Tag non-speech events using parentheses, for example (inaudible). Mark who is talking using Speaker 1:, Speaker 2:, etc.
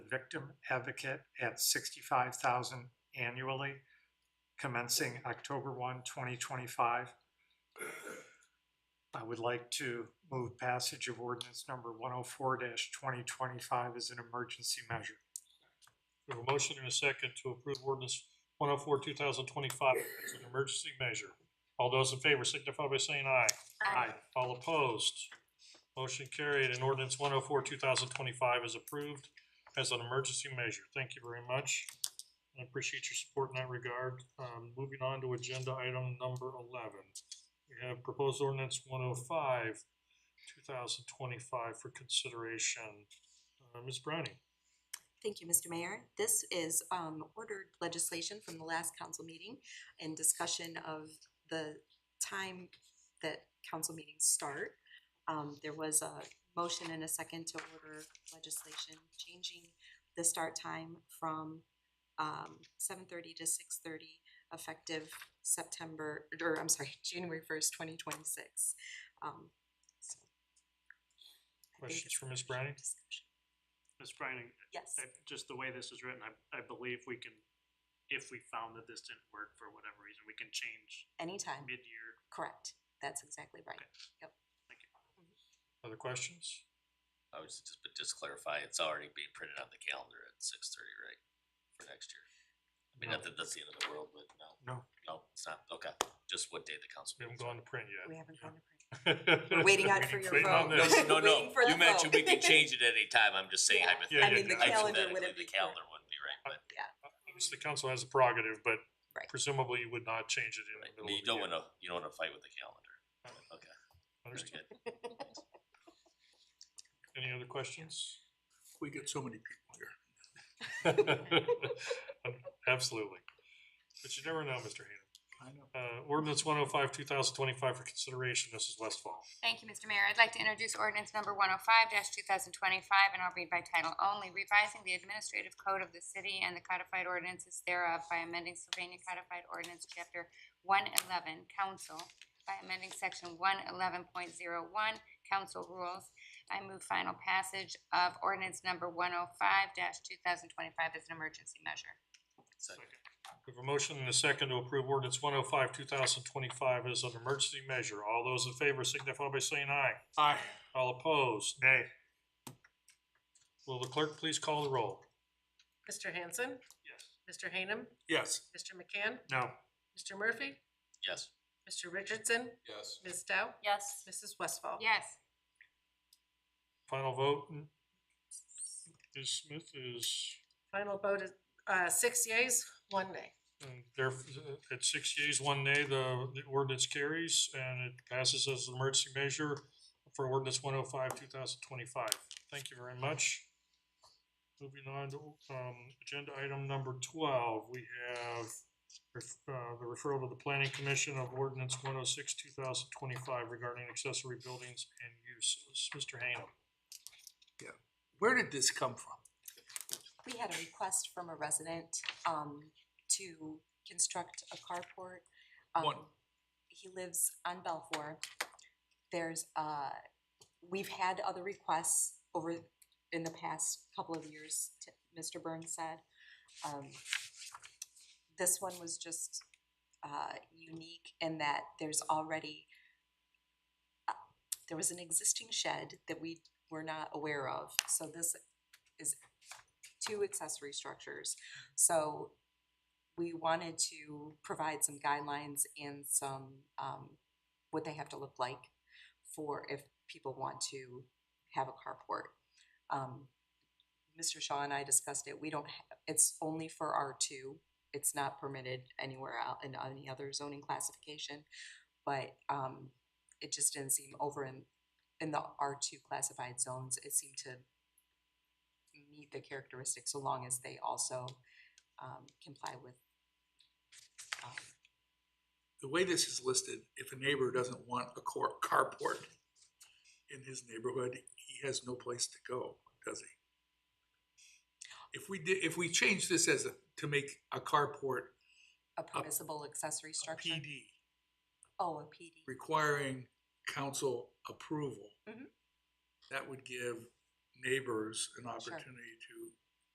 Speaker 1: victim advocate at sixty-five thousand annually, commencing October 1, 2025. I would like to move passage of ordinance number one oh four twenty twenty-five as an emergency measure.
Speaker 2: We have a motion and a second to approve ordinance one oh four, two thousand twenty-five as an emergency measure. All those in favor signify by saying aye.
Speaker 3: Aye.
Speaker 2: All opposed. Motion carried and ordinance one oh four, two thousand twenty-five is approved as an emergency measure. Thank you very much. I appreciate your support in that regard. Um, moving on to agenda item number eleven. We have proposed ordinance one oh five, two thousand twenty-five for consideration. Uh, Ms. Browning?
Speaker 3: Thank you, Mr. Mayor. This is um ordered legislation from the last council meeting and discussion of the time that council meetings start. Um there was a motion and a second to order legislation changing the start time from um seven thirty to six thirty effective September, or I'm sorry, (laughs) January first, twenty twenty-six. Um so. I think
Speaker 2: Questions
Speaker 3: it's
Speaker 2: for Ms. Browning?
Speaker 3: discussion.
Speaker 4: Ms. Brining,
Speaker 3: Yes.
Speaker 4: I, just the way this is written, I, I believe we can, if we found that this didn't work for whatever reason, we can change
Speaker 3: Anytime,
Speaker 4: mid-year.
Speaker 3: correct. That's exactly right.
Speaker 2: Other questions?
Speaker 5: I was just, but just clarify, it's already being printed on the calendar at six thirty, right, for next year? I mean, not that that's the end of the world, but no,
Speaker 1: No,
Speaker 5: no, it's not, okay, just what day the council
Speaker 2: We
Speaker 5: meeting.
Speaker 2: haven't gone to print
Speaker 3: We
Speaker 2: yet.
Speaker 3: haven't gone to print.
Speaker 2: We're (laughs)
Speaker 3: We're waiting out for your
Speaker 2: waiting on
Speaker 3: vote.
Speaker 2: this.
Speaker 5: No, no,
Speaker 3: (laughs) Waiting for the
Speaker 5: no, you mentioned we
Speaker 3: vote.
Speaker 5: can change it at any time, I'm just saying
Speaker 2: Yeah, yeah,
Speaker 3: Yeah. I mean,
Speaker 5: hypothetically.
Speaker 3: the
Speaker 2: yeah.
Speaker 3: calendar would have
Speaker 5: Hypothetically,
Speaker 3: been.
Speaker 5: the calendar wouldn't be right, but
Speaker 2: Obviously, the council has a prerogative, but
Speaker 3: Right.
Speaker 2: presumably you would not change it in
Speaker 5: right,
Speaker 2: the middle
Speaker 5: I
Speaker 2: of
Speaker 5: mean, you
Speaker 2: the
Speaker 5: don't
Speaker 2: year.
Speaker 5: wanna, you don't wanna fight with the calendar, okay, very
Speaker 2: Understood.
Speaker 5: good.
Speaker 2: Any other
Speaker 3: (laughs)
Speaker 2: questions?
Speaker 6: We get so many people here.
Speaker 2: Um, Absolutely. But you never know, Mr. Hayden.
Speaker 6: I know.
Speaker 2: Uh, ordinance one oh five, two thousand twenty-five for consideration. This is Westfall.
Speaker 7: Thank you, Mr. Mayor. I'd like to introduce ordinance number one oh five two thousand twenty-five, and I'll read by title only, revising the administrative code of the city and the codified ordinances thereof by amending Sylvania Codified Ordinance Chapter one eleven, council, by amending section one eleven point zero one, council rules. I move final passage of ordinance number one oh five two thousand twenty-five as an emergency measure.
Speaker 5: Second,
Speaker 2: We have a motion and a second to approve ordinance one oh five, two thousand twenty-five as an emergency measure. All those in favor signify by saying aye.
Speaker 1: Aye.
Speaker 2: All opposed.
Speaker 1: nay,
Speaker 2: Will the clerk please call the roll?
Speaker 8: Mr. Hanson,
Speaker 2: Yes.
Speaker 8: Mr. Hanem,
Speaker 6: Yes.
Speaker 8: Mr. McCann,
Speaker 1: no,
Speaker 8: Mr. Murphy,
Speaker 5: yes,
Speaker 8: Mr. Richardson,
Speaker 6: Yes.
Speaker 8: Ms. Dow,
Speaker 7: Yes.
Speaker 8: Mrs. Westfall.
Speaker 7: Yes.
Speaker 2: Final vote is Smith is,
Speaker 8: Final vote is, uh, six yeas, one nay.
Speaker 2: um, there, at six yeas, one nay, the, the ordinance carries and it passes as an emergency measure for ordinance one oh five, two thousand twenty-five. Thank you very much. Moving on to, um, agenda item number twelve, we have ref- uh, the referral to the planning commission of ordinance one oh six, two thousand twenty-five regarding accessory buildings and uses. Mr. Hanem.
Speaker 6: Where did this come from?
Speaker 3: We had a request from a resident um to construct a carport. Um,
Speaker 6: One.
Speaker 3: He lives on Belfour. There's uh, we've had other requests over in the past couple of years, t- Mr. Burns said. Um, this one was just uh unique in that there's already uh, there was an existing shed that we were not aware of, so this is two accessory structures. So we wanted to provide some guidelines and some, um, what they have to look like for if people want to have a carport. Um, Mr. Shaw and I discussed it, we don't, ha- it's only for R two. It's not permitted anywhere out in any other zoning classification. But, um, it just didn't seem over in, in the R two classified zones, it seemed to meet the characteristics so long as they also um comply with um
Speaker 6: The way this is listed, if a neighbor doesn't want a cor- carport in his neighborhood, he has no place to go, does he? If we did, if we change this as a, to make a carport
Speaker 3: a permissible accessory
Speaker 6: a
Speaker 3: structure.
Speaker 6: PD
Speaker 3: Oh, a PD.
Speaker 6: requiring council approval,
Speaker 3: Mhm.
Speaker 6: that would give neighbors an
Speaker 3: Sure.
Speaker 6: opportunity to